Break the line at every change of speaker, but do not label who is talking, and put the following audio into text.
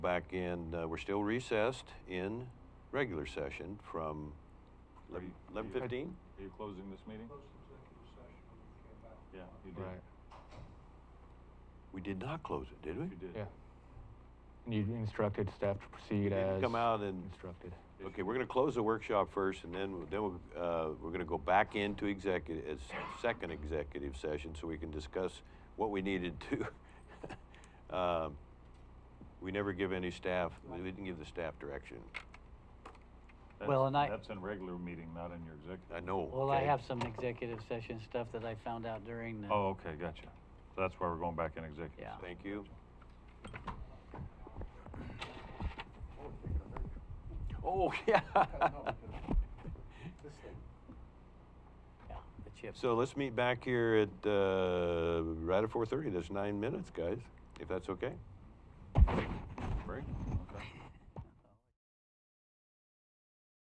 Back in, uh, we're still recessed in regular session from
Are you- are you-
eleven fifteen?
Are you closing this meeting? Yeah, you did.
Right.
We did not close it, did we?
You did.
Yeah. And you instructed staff to proceed
Didn't
as.
come out and-
Instructed.
Okay, we're gonna close the workshop first, and then, then, we'll, uh, we're gonna go back into executive, as second executive session, so we can discuss what we needed to. Um, We never give any staff, we didn't give the staff direction.
That's-
Well, and I-
That's in regular meeting, not in your executive.
I know.
Well, I
okay?
have some executive session stuff that I found out during the.
Oh, okay, gotcha. So that's why we're going back in executive.
Yeah.
session.
Thank you. Oh, yeah.
Yeah, the chip.
So let's meet back here at, uh, right at four thirty, that's nine minutes, guys, if that's okay.